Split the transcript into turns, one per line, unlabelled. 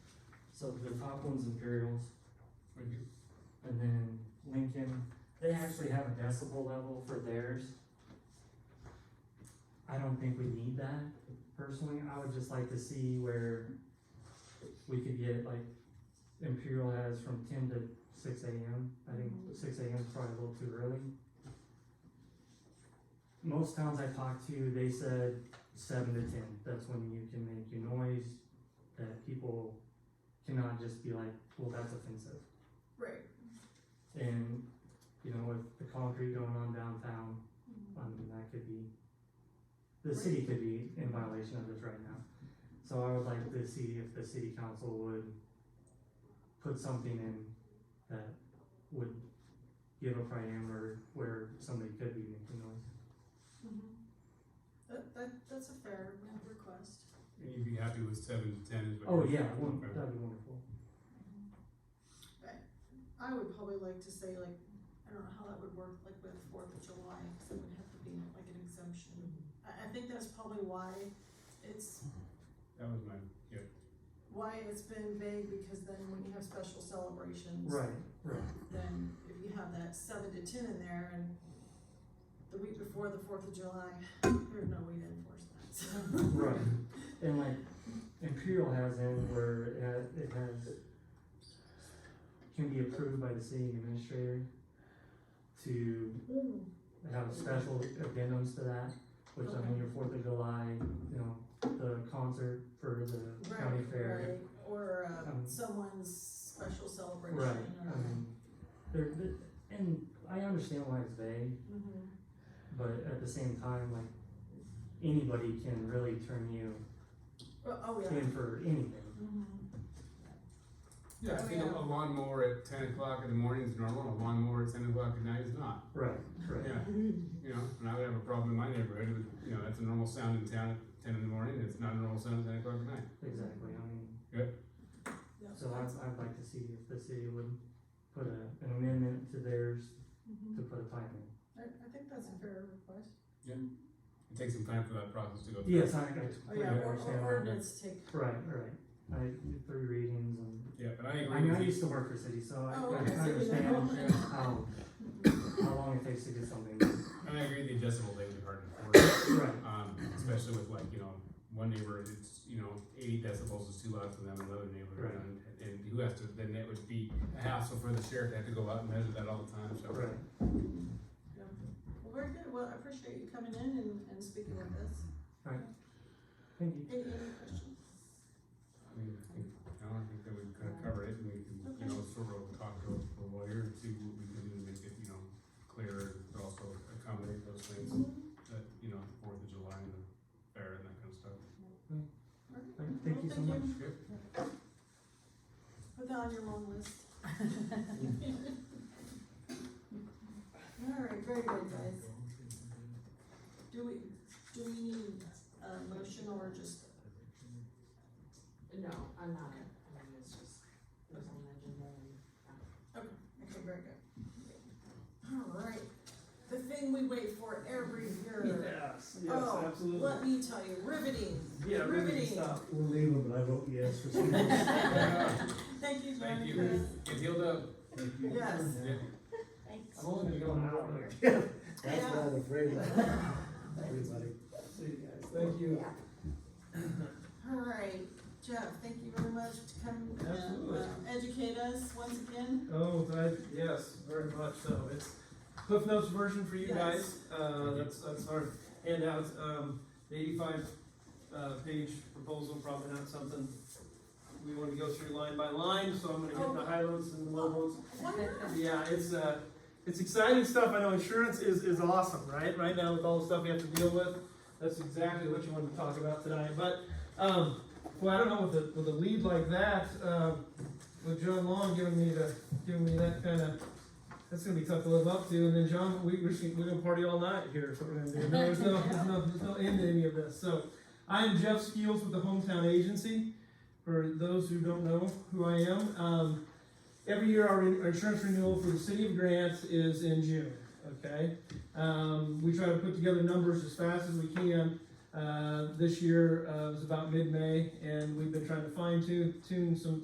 So the top one's Imperials,
Right here.
and then Lincoln, they actually have a decibel level for theirs. I don't think we need that personally, I would just like to see where we could get like Imperial has from ten to six AM, I think six AM is probably a little too early. Most towns I talked to, they said seven to ten, that's when you can make your noise, that people cannot just be like, well, that's offensive.
Right.
And, you know, with the concrete going on downtown, I mean, that could be, the city could be in violation of this right now. So I would like to see if the city council would put something in that would give a parameter where somebody could be making noise.
Mm-hmm. That, that, that's a fair request.
And you'd be happy with seven to ten is what?
Oh,
you're-
yeah, won-
Okay.
that'd be wonderful.
Mm-hmm. I would probably like to say like, I don't know how that would work, like with Fourth of July, cause it would have to be like an exemption.
Mm-hmm.
I, I think that's probably why it's,
That was mine, yeah.
why it's been vague, because then when you have special celebrations,
Right, right,
then if you have that seven to ten in there and the week before the Fourth of July, there's no way to enforce that, so.
right. And like Imperial has in where it has, it has, can be approved by the city administrator to
Mm,
They have special addendums to that, which I mean, your Fourth of July, you know, the concert for the county
Right,
fair.
right, or, uh,
Um,
someone's special celebration
Right,
or.
I mean, there, there- and I understand why it's vague,
Mhm.
but at the same time, like, anybody can really turn you
Oh, oh, yeah.
in for anything.
Mhm.
Yeah, I think a a lawnmower at ten o'clock in the morning is normal, a lawnmower at ten o'clock at night is not.
Right, right,
Yeah,
Mm-hmm.
you know, and I would have a problem in my neighborhood with, you know, that's a normal sound in town at ten in the morning, and it's not a normal sound at ten o'clock at night.
exactly, I mean,
Yeah.
so I'd, I'd like to see if the city would put a, an amendment to theirs
Mhm.
to put a time in.
I, I think that's a fair request.
It takes some time for that process to go through.
Yes, I, I
Oh,
completely
yeah, or,
understand.
or
why.
ordinance take,
Right, right. I did three readings and
Yeah, but I
I
agree
mean, I
with you.
used to work for city, so I,
Oh,
I
okay, so you
understand
know.
how, how long it takes to do something.
And I agree the adjustable thing is hard to enforce,
Right,
um, especially with like, you know, one neighbor, it's, you know, eighty decibels is too loud for them, another neighbor,
Right.
and, and who has to, then it would be a hassle for the sheriff to have to go out and measure that all the time, so.
right.
well, very good, well, I appreciate you coming in and, and speaking with us.
Thank you.
Any, any questions?
I mean, I think, I don't think that we've kind of covered it, and we can, you know, sort of talk to a lawyer and see what we can do to make it, you know, clearer, but also accommodate those things that, you know, Fourth of July and the fair and that kind of stuff.
Thank- Thank you so much.
Yep.
Put that on your long list. All right, very good, guys. Do we, do we need a motion or just,
No, I'm not, I mean, it's just, it was on the agenda and.
okay, very good. All right, the thing we wait for every year.
Yes,
Oh, Let me tell you, riveting. riveting.
We'll leave him, but I vote yes for some reason.
Thank you,
Thank you.
Jennifer.
Get healed up.
Yes.
Yeah.
Thanks.
I'm only gonna go an hour. That's what I'm afraid of. Everybody. See you guys, thank you.
All right, Jeff, thank you very much to come and
Absolutely.
uh, educate us once again.
Oh, I, yes, very much so, it's Cliff Notes version for you
Yes.
guys, uh, that's, that's our handout, um, the eighty-five, uh, page proposal, probably not something we wanna go through line by line, so I'm gonna
Oh.
hit the high notes and the low notes.
Why not?
Yeah, it's uh, it's exciting stuff. I know insurance is, is awesome, right? Right now with all the stuff we have to deal with, that's exactly what you wanted to talk about tonight. But um, well, I don't know with a with a lead like that, um, with John Long giving me the giving me that kind of. That's gonna be tough to live up to, and then John, we, we're, just gonna- we're gonna party all night here. Is what we're gonna do. There's no, there's no, there's no end to any of this. So, I am Jeff Skeels with the Hometown Agency. For those who don't know who I am, um, every year our, our insurance renewal for the city of Grant is in June. Okay, um, we try to put together numbers as fast as we can. Uh, this year uh, was about mid-May, and we've been trying to fine tune tune some